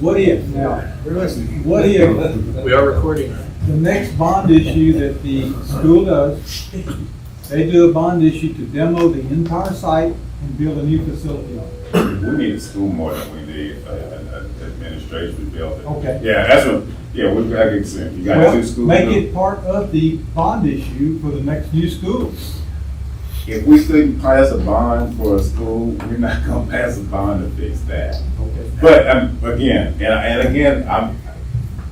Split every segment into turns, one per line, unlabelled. what if, now, we're listening, what if
We are recording.
the next bond issue that the school does, they do a bond issue to demo the entire site and build a new facility on it?
We need a school more than we need an, an administration building.
Okay.
Yeah, that's what, yeah, we, I can see, you got
Well,
two schools.
Make it part of the bond issue for the next new school.
If we couldn't pass a bond for a school, we're not gonna pass a bond to fix that.
Okay.
But, um, again, and, and again, I'm,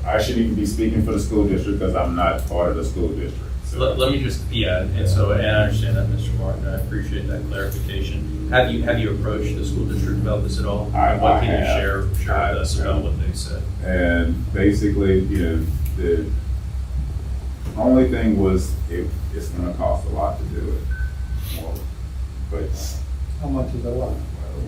I shouldn't even be speaking for the school district, cause I'm not part of the school district. so-
Let, let me just, yeah, and so, and I understand that, Mr. Martin, I appreciate that clarification. Have you, have you approached the school district about this at all?
I-
And What
I
can you
have.
share, share with us about what they said?
And basically, you know, the only thing was it, it's gonna cost a lot to do it. Well, But
How much is a lot?
I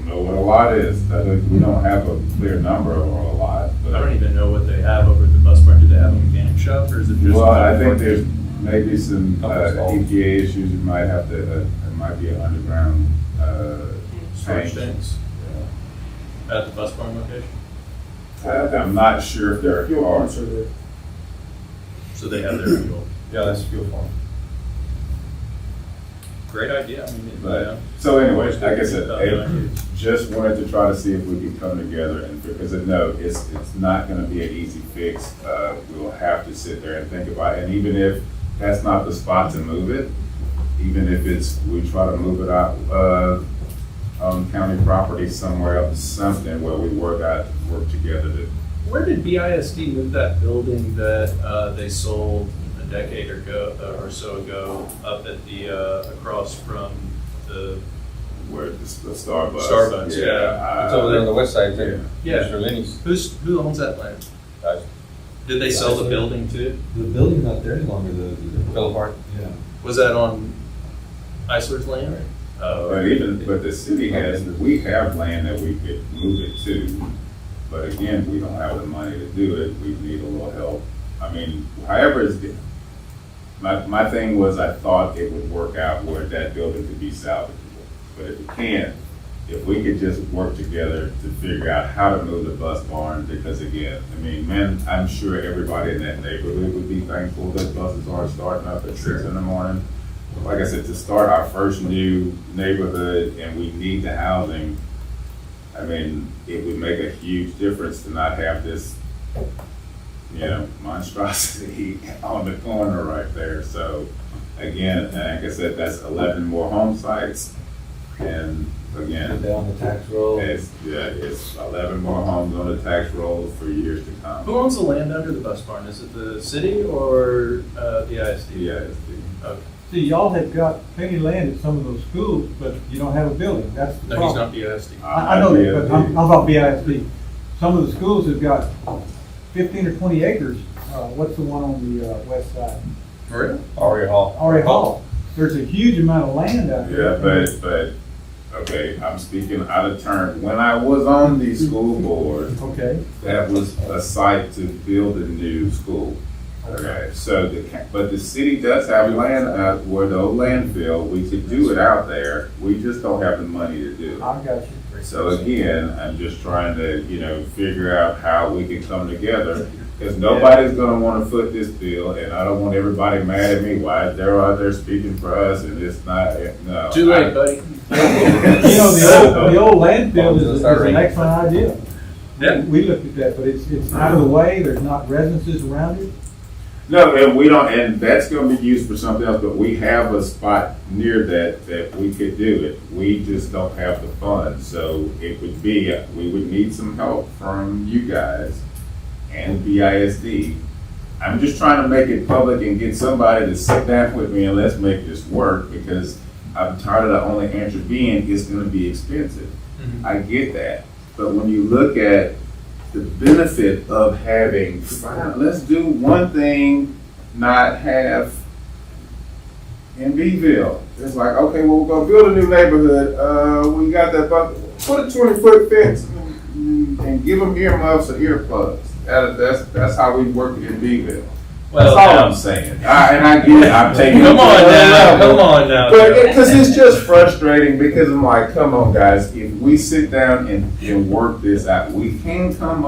don't know what a lot is. I don't- we don't have a clear number of a lot,
I
but.
don't even know what they have over at the bus barn. Do they have a mechanic shop or is it just?
Well, I think there's maybe some uh,
Couple small-
EPA issues. You might have to, uh, it might be an underground, uh,
Storage
tank.
tanks at the bus barn location?
I- uh, I'm not sure if there are.
So they have their fuel.
Yeah, that's fuel farm.
Great idea. I mean, you
But,
know.
so anyways, like I said,
Uh,
I just wanted to try to see if we could come together and, because I know it's, it's not gonna be an easy fix. Uh, we'll have to sit there and think about it, and even if that's not the spot to move it, even if it's, we try to move it out, uh, on county property somewhere else, something where we work out, work together to,
Where did BISD move that building that uh, they sold a decade or go, or so ago up at the, uh, across from the,
where the the Starbucks.
Starbucks, yeah.
It's over there on the west side,
Yeah.
too.
yeah,
Mr. Lenny's.
who's, who owns that land?
Us.
Did they sell the building too?
The building's not there any longer, the, the,
Philip Hart.
yeah.
Was that on Isler's land?
Uh, But
Oh,
even, but the city has, we have land that we could move it to, but again, we don't have the money to do it, we need a little help. I mean, however it's, di- my, my thing was I thought it would work out where that building could be salvageable. But if it can't, if we could just work together to figure out how to move the bus barn, because again, I mean, man, I'm sure everybody in that neighborhood would be thankful that buses aren't starting up at six in the morning like I said, to start our first new neighborhood and we need the housing, I mean, it would make a huge difference to not have this, you know, monstrosity on the corner right there. So again, like I said, that's eleven more home sites. And
Put
again,
down the tax roll.
it's, yeah, it's eleven more homes on the tax roll for years to come.
who owns the land under the bus barn? Is it the city or uh, BISD?
Yeah, it's the-
Okay.
See, y'all have got plenty of land at some of those schools, but you don't have a building, that's the
No, he's
problem.
not BISD.
I, I know that, but I'm, I'm about BISD. Some of the schools have got fifteen or twenty acres, uh, what's the one on the, uh, west side?
Really?
Aria Hall.
Ari Hall, there's a huge amount of land out
Yeah,
there.
but, but, okay, I'm speaking out of turn. When I was on the school board,
Okay,
that was a site to build a new school. Okay, so the, ca- but the city does have land out where the old landfill, we could do it out there. We just don't have the money to do it.
I got you.
So again, I'm just trying to, you know, figure out how we can come together. Because nobody's gonna wanna foot this bill and I don't want everybody mad at me. Why they're out there speaking for us and it's not, eh, no.
Too late, buddy.
You know, the old, the old landfill is,
Oh,
is
that's
an
right.
excellent idea.
Yeah.
We looked at that, but it's, it's out of the way, there's not residences around it.
No, and we don't, and that's gonna be used for something else, but we have a spot near that, that we could do it. We just don't have the funds, so it would be, we would need some help from you guys and BISD. I'm just trying to make it public and get somebody to sit down with me and let's make this work, because I'm tired of the only answer being, it's gonna be expensive.
Mhm.
I get that, but when you look at the benefit of having, five- let's do one thing, not have in Beville. It's like, okay, well, we're gonna build a new neighborhood, uh, we got that, but put a twenty foot fence and and give them earmuffs or earplugs. That, that's, that's how we work in Beville. That's
Well,
all
now-
I'm saying. I, and I get it, I'm taking. it
Come
to
on
another
now,
level.
come on now.
But because it's just frustrating because I'm like, come on, guys, if we sit down and, and work this out, we can come